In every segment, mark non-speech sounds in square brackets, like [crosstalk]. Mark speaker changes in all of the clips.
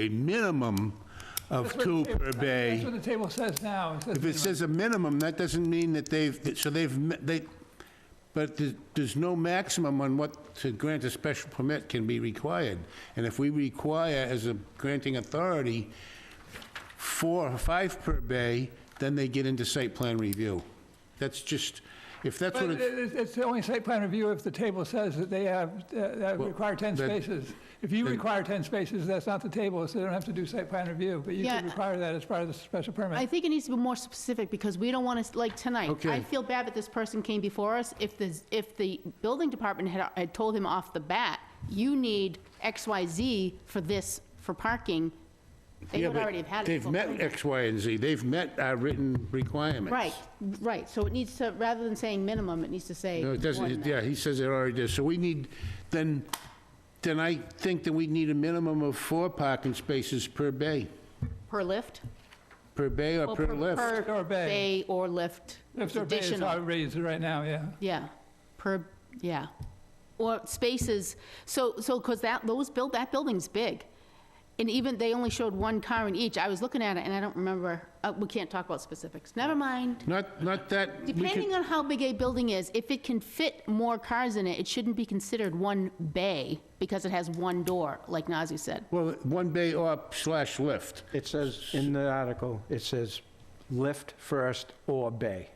Speaker 1: a minimum of two per
Speaker 2: That's
Speaker 1: bay.
Speaker 2: what the table says now. It says
Speaker 1: If it
Speaker 2: minimum.
Speaker 1: says a minimum, that doesn't mean that they've, so they've, me- they, but there- there's no maximum on what, to grant a special permit can be required. And if we require as a granting authority, four or five per bay, then they get into site plan review. That's just, if that's what
Speaker 2: But uh, it-
Speaker 1: it's,
Speaker 2: it's, it's only site plan review if the table says that they have, uh, that require 10
Speaker 1: that-
Speaker 2: spaces. If you require 10 spaces, that's not the table, so they don't have to do site plan review, but you
Speaker 3: Yeah.
Speaker 2: could require that as part of the special
Speaker 3: I
Speaker 2: permit.
Speaker 3: think it needs to be more specific, because we don't want to, like, tonight,
Speaker 1: Okay.
Speaker 3: I feel bad that this person came before us. If the, if the building department had, had told him off the bat, you need X, Y, Z for this, for parking, they
Speaker 1: yeah,
Speaker 3: would
Speaker 1: but
Speaker 3: already have had it.
Speaker 1: they've
Speaker 3: before.
Speaker 1: met X, Y, and Z. They've met our written requirements.
Speaker 3: Right, right, so it needs to, rather than saying minimum, it needs to say
Speaker 1: No, it
Speaker 3: more than
Speaker 1: doesn't,
Speaker 3: that.
Speaker 1: yeah, he says it already does. So we need, then, then I think that we need a minimum of four parking spaces per bay,
Speaker 3: Per lift?
Speaker 1: per bay or
Speaker 3: Well,
Speaker 1: per lift.
Speaker 2: Or
Speaker 3: Per
Speaker 2: bay.
Speaker 3: bay or lift,
Speaker 2: If
Speaker 3: It's
Speaker 2: they're based,
Speaker 3: additional.
Speaker 2: how it reads right now, yeah.
Speaker 3: Yeah, per, yeah. Or spaces, so, so, because that, those build, that building's big. And even, they only showed one car in each. I was looking at it and I don't remember, uh, we can't talk about specifics. Never mind.
Speaker 1: Not, not that, we
Speaker 3: Depending
Speaker 1: could,
Speaker 3: on how big a building is, if it can fit more cars in it, it shouldn't be considered one bay because it has one door, like Nazir said.
Speaker 1: well, one bay or slash lift.
Speaker 4: It says, in the article, it says lift first or bay.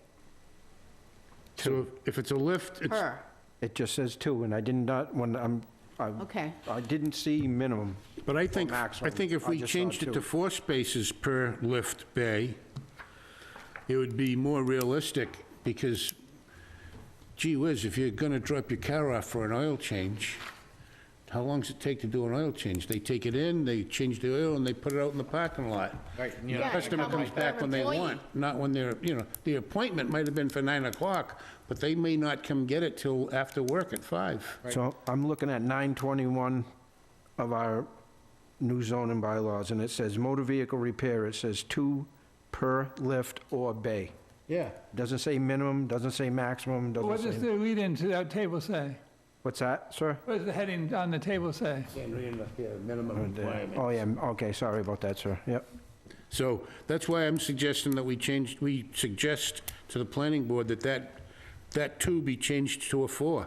Speaker 1: So if it's a lift, it's,
Speaker 3: Per,
Speaker 4: It just says two, and I did not, when I'm, I,
Speaker 3: okay.
Speaker 4: I didn't see minimum.
Speaker 1: but I think,
Speaker 4: Or
Speaker 1: I
Speaker 4: maximum.
Speaker 1: think if
Speaker 4: I
Speaker 1: we
Speaker 4: just saw
Speaker 1: changed it to
Speaker 4: two.
Speaker 1: four spaces per lift bay, it would be more realistic, because gee whiz, if you're gonna drop your car off for an oil change, how long does it take to do an oil change? They take it in, they change the oil, and they put it out in the parking lot. Right. The
Speaker 3: Yeah,
Speaker 1: customer
Speaker 3: how
Speaker 1: comes
Speaker 3: much
Speaker 1: back
Speaker 3: per
Speaker 1: when they
Speaker 3: employee?
Speaker 1: want, not when they're, you know, the appointment might have been for nine o'clock, but they may not come get it till after work at five.
Speaker 4: So I'm looking at 921 of our new zoning bylaws, and it says motor vehicle repair, it says two per lift or bay.
Speaker 1: Yeah.
Speaker 4: Doesn't say minimum, doesn't say maximum,
Speaker 2: What
Speaker 4: doesn't
Speaker 2: does
Speaker 4: say,
Speaker 2: the lead into that table say?
Speaker 4: what's that, sir?
Speaker 2: What does the heading on the table say?
Speaker 1: minimum requirement.
Speaker 4: Oh, yeah, okay, sorry about that, sir, yep.
Speaker 1: So that's why I'm suggesting that we change, we suggest to the planning board that that, that two be changed to a four.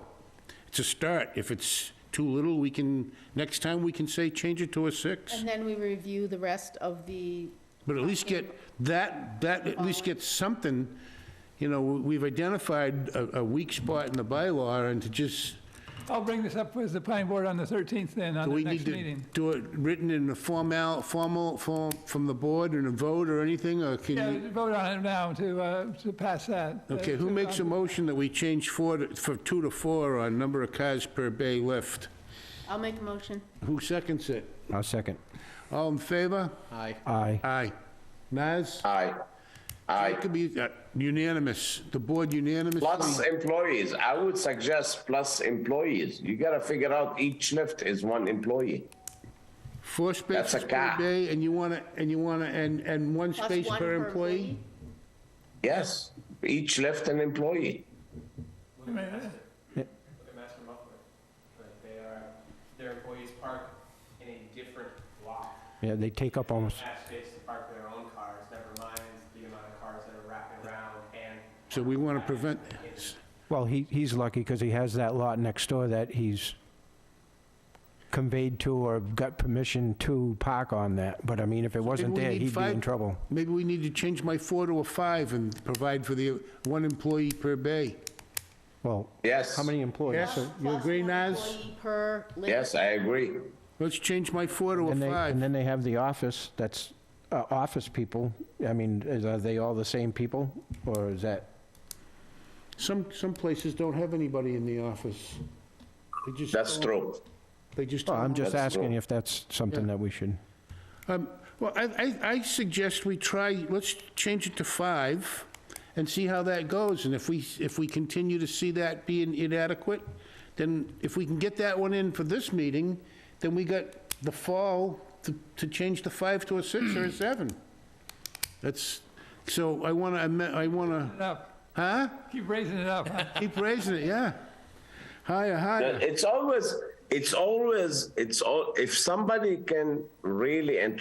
Speaker 1: It's a start. If it's too little, we can, next time we can say, change it to a six.
Speaker 3: And then we review the rest of the,
Speaker 1: But at least get that, that, at least get something, you know, we've identified a, a weak spot in the bylaw and to just,
Speaker 2: I'll bring this up with the planning board on the 13th then, on
Speaker 1: do
Speaker 2: the
Speaker 1: we need
Speaker 2: next
Speaker 1: to
Speaker 2: meeting.
Speaker 1: do it written in a formal, formal, form from the board and a vote or anything, or can
Speaker 2: Yeah,
Speaker 1: you?
Speaker 2: vote on it now to, uh, to pass that. uh,
Speaker 1: Okay, who
Speaker 2: to-
Speaker 1: makes a
Speaker 2: on-
Speaker 1: motion that we change four, to- from two to four on number of cars per bay lift?
Speaker 3: I'll make a motion.
Speaker 1: Who seconds it?
Speaker 4: I'll second.
Speaker 1: All in favor?
Speaker 4: Aye.
Speaker 1: Aye. Naz?
Speaker 5: Aye. Aye.
Speaker 1: Jacob, you- uh, Unanimous, the board unanimously?
Speaker 5: Plus
Speaker 4: Hmm.
Speaker 5: employees. I would suggest plus employees. You gotta figure out each lift is one employee.
Speaker 1: Four
Speaker 5: That's a
Speaker 1: spaces per
Speaker 5: guy.
Speaker 1: bay, and you want to, and you want to, and, and one
Speaker 3: Plus
Speaker 1: space
Speaker 3: one
Speaker 1: per employee?
Speaker 5: Yes, each lift an employee.
Speaker 2: I mean,
Speaker 6: a match them up with. Like they are, their employees park in a different lot.
Speaker 4: Yeah, they take up almost,
Speaker 6: Have space to park their own cars, never mind the amount of cars that are wrapping around and
Speaker 1: So we want to prevent,
Speaker 4: well, he, he's lucky because he has that lot next door that he's conveyed to or got permission to park on that. But I mean, if it wasn't
Speaker 1: we
Speaker 4: there,
Speaker 1: need
Speaker 4: he'd be in
Speaker 1: five-
Speaker 4: trouble.
Speaker 1: maybe we need to change my four to a five and provide for the one employee per bay.
Speaker 4: Well,
Speaker 5: Yes.
Speaker 4: how many employees?
Speaker 1: Yes,
Speaker 4: So-
Speaker 1: you agree, Naz?
Speaker 3: Employee per lift.
Speaker 5: Yes, I agree.
Speaker 1: Let's change my four to a
Speaker 4: And they, and
Speaker 1: five.
Speaker 4: then they have the office, that's uh, office people. I mean, is- are they all the same people? Or is that,
Speaker 1: Some, some places don't have anybody in the office. They just
Speaker 5: That's
Speaker 1: don't-
Speaker 5: true.
Speaker 1: They just.
Speaker 4: Well, I'm just
Speaker 5: That's
Speaker 4: asking
Speaker 5: wrong.
Speaker 4: if that's something that we should,
Speaker 1: Um, Well, I, I- I suggest we try, let's change it to five and see how that goes. And if we, if we continue to see that being inadequate, then if we can get that one in for this meeting, then we got the fall to, to change the five to a six
Speaker 5: [clears throat]
Speaker 1: or a seven. That's, so I want to, I want to,
Speaker 2: Up,
Speaker 1: huh?
Speaker 2: keep raising it up.
Speaker 1: Keep raising it, yeah. Higher, higher.
Speaker 5: It's always, it's always, it's all, if somebody can really and